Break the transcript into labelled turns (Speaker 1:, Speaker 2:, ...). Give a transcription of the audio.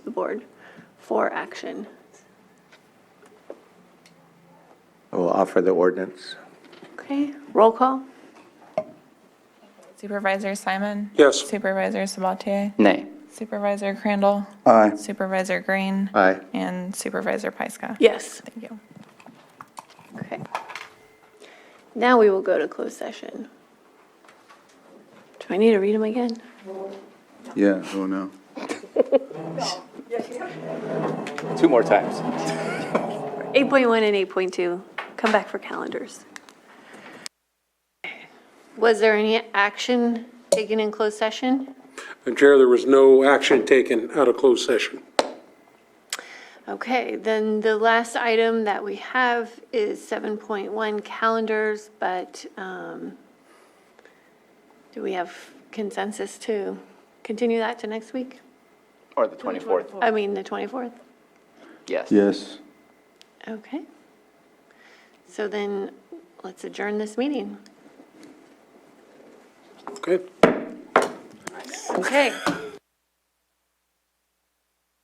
Speaker 1: the board for action.
Speaker 2: I will offer the ordinance.
Speaker 1: Okay, roll call?
Speaker 3: Supervisor Simon?
Speaker 4: Yes.
Speaker 3: Supervisor Sabatier?
Speaker 5: Nay.
Speaker 3: Supervisor Crandall?
Speaker 2: Aye.
Speaker 3: Supervisor Green?
Speaker 2: Aye.
Speaker 3: And Supervisor Pyska?
Speaker 1: Yes.
Speaker 3: Thank you.
Speaker 1: Okay. Now we will go to closed session. Do I need to read them again?
Speaker 2: Yeah, oh no.
Speaker 5: Two more times.
Speaker 1: 8.1 and 8.2, come back for calendars. Was there any action taken in closed session?
Speaker 4: Madam Chair, there was no action taken out of closed session.
Speaker 1: Okay, then the last item that we have is 7.1 calendars, but um, do we have consensus to continue that to next week?
Speaker 5: Or the 24th,
Speaker 1: I mean, the 24th?
Speaker 5: yes.
Speaker 2: Yes.
Speaker 1: Okay. So then, let's adjourn this meeting.
Speaker 4: Okay?
Speaker 1: Okay.